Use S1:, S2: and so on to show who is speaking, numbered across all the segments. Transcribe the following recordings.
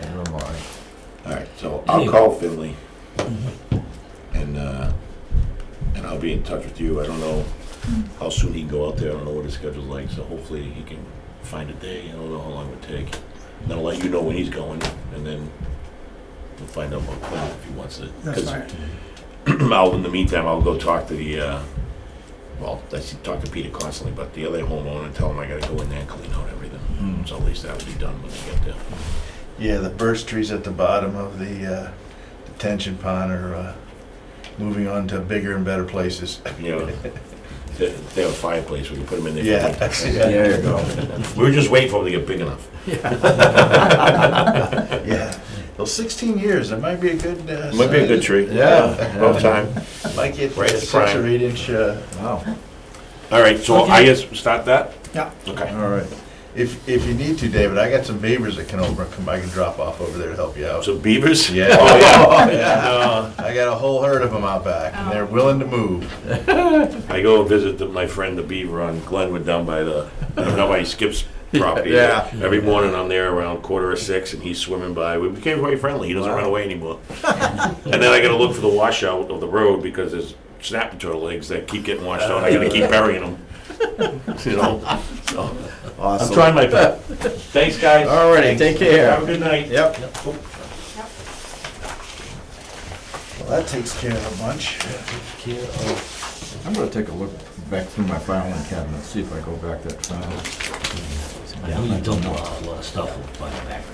S1: Neither am I.
S2: All right, so I'll call Finley. And, uh, and I'll be in touch with you. I don't know how soon he can go out there. I don't know what his schedule's like, so hopefully he can find a day. I don't know how long it would take. And I'll let you know when he's going, and then we'll find out about Clint if he wants it.
S3: That's fine.
S2: I'll, in the meantime, I'll go talk to the, uh, well, I see- talk to Peter constantly, but the other homeowner and tell him I gotta go in there and clean out everything.
S1: Mm.
S2: So at least that'll be done when I get there.
S1: Yeah, the burst trees at the bottom of the uh, detention pond are uh, moving on to bigger and better places.
S2: Yeah. They they have a fireplace, we can put them in there.
S1: Yeah.
S4: There you go.
S2: We were just waiting for them to get big enough.
S1: Yeah. Well, 16 years, that might be a good. uh,
S2: Might be a good
S1: size.
S2: tree.
S1: Yeah.
S2: About time.
S1: Might get
S2: Right,
S1: uh,
S2: it's
S1: six
S2: prime.
S1: or eight inch. uh,
S4: Wow.
S2: All right, so I
S3: Okay.
S2: guess we start that?
S3: Yeah.
S2: Okay.
S1: All right. If, if you need to, David, I got some beavers that can over, come, I can drop off over there to help you out.
S2: So beavers?
S1: Yeah.
S2: Oh, yeah. Uh,
S1: Yeah. I got a whole herd of them out back and they're willing to move.
S2: I go visit the- my friend the beaver on Glenwood down by the, down by Skip's property.
S1: Yeah.
S2: Every morning I'm there around quarter of six and he's swimming by. We became quite friendly. He doesn't run away anymore. And then I gotta look for the washout of the road because there's snapping turtle eggs that keep getting washed out. I gotta keep burying them. You know, so I'm
S4: Awesome.
S2: trying my best. Thanks, guys.
S4: All righty, take care.
S2: Have a good night.
S4: Yep.
S1: Well, that takes care of a bunch.
S4: I'm gonna take a look back through my filing cabinet, see if I go back that far.
S5: I know you dumped a lot a lot of uh, stuff by the back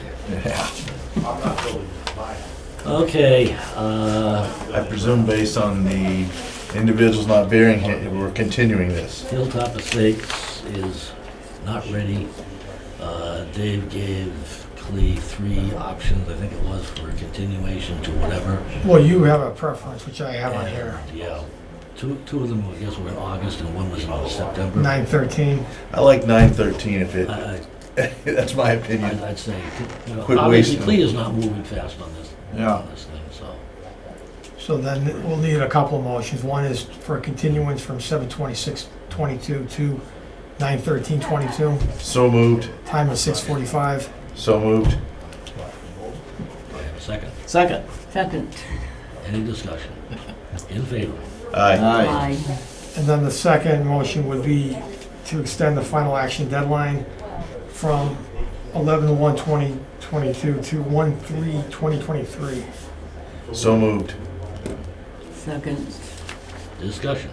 S5: there. Okay, uh,
S1: I presume based on the individuals not bearing it, we're continuing this.
S5: Hilltop Estates is not ready. Uh, Dave gave Clea three options, I think it was, for a continuation to whatever.
S3: Well, you have a preference, which I have on here,
S5: And, Yeah, two, two of them, I guess, were in August and one was in September.
S3: nine thirteen.
S1: I like nine thirteen if it,
S5: I-
S1: that's my
S5: I- I'd
S1: opinion.
S5: I'd say, you know,
S1: Quit
S5: obviously
S1: wasting.
S5: Clea is not moving fast on this,
S4: Yeah.
S5: on this thing, so.
S3: So then we'll need a couple of motions. One is for a continuance from seven twenty-six twenty-two to nine thirteen twenty-two,
S1: So moved,
S3: time of six forty-five.
S1: so moved.
S5: Do I have a second?
S4: Second.
S6: Second.
S5: Any discussion? In favor?
S1: Aye.
S4: Aye.
S3: And then the second motion would be to extend the final action deadline from eleven one twenty twenty-two to one three twenty twenty-three.
S1: So moved.
S6: Second.
S5: Discussion.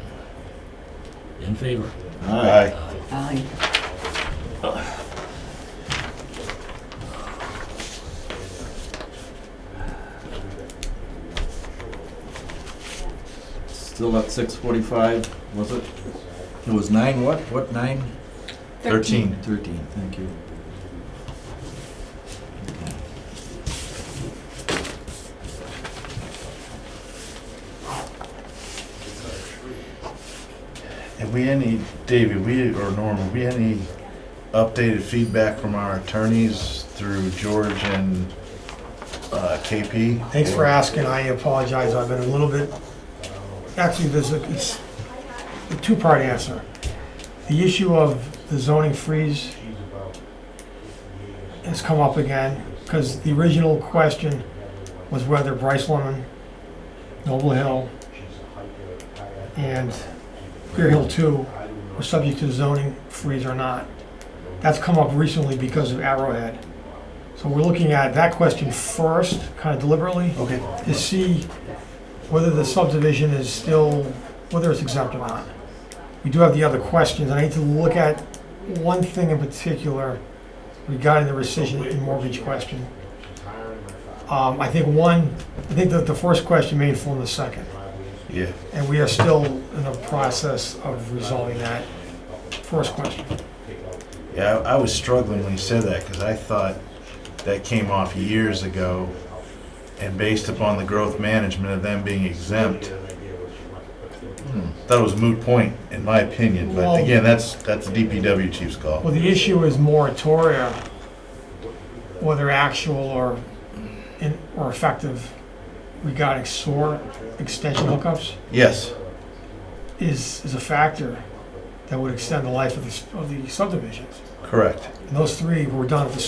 S5: In favor?
S1: Aye.
S6: Aye.
S4: Still at six forty-five, was it? It was nine what? What, nine?
S1: Thirteen.
S4: Thirteen, thank you.
S1: Have we any, David, we, or Norm, have we any updated feedback from our attorneys through George and uh, KP?
S3: Thanks for asking, I apologize, I've been a little bit, actually, there's a, it's a two-part answer. The issue of the zoning freeze has come up again, because the original question was whether Bryce Lemon, Noble Hill, and Clear Hill Two were subject to the zoning freeze or not. That's come up recently because of Arrowhead. So we're looking at that question first, kind of deliberately,
S1: Okay.
S3: to see whether the subdivision is still, whether it's exempt or not. We do have the other questions, and I need to look at one thing in particular regarding the rescission and mortgage question. Um, I think one, I think that the first question may inform the second,
S1: Yeah.
S3: and we are still in the process of resolving that first question.
S1: Yeah, I I was struggling when you said that because I thought that came off years ago, and based upon the growth management of them being exempt, that was moot point in my opinion.
S3: Well-
S1: But again, that's that's the DPW chief's call.
S3: Well, the issue is moratoria, whether actual or, in- or effective regarding sewer extension hookups
S1: Yes,
S3: is, is a factor that would extend the life of the, s- of the subdivisions.
S1: correct.
S3: And those three were done at the same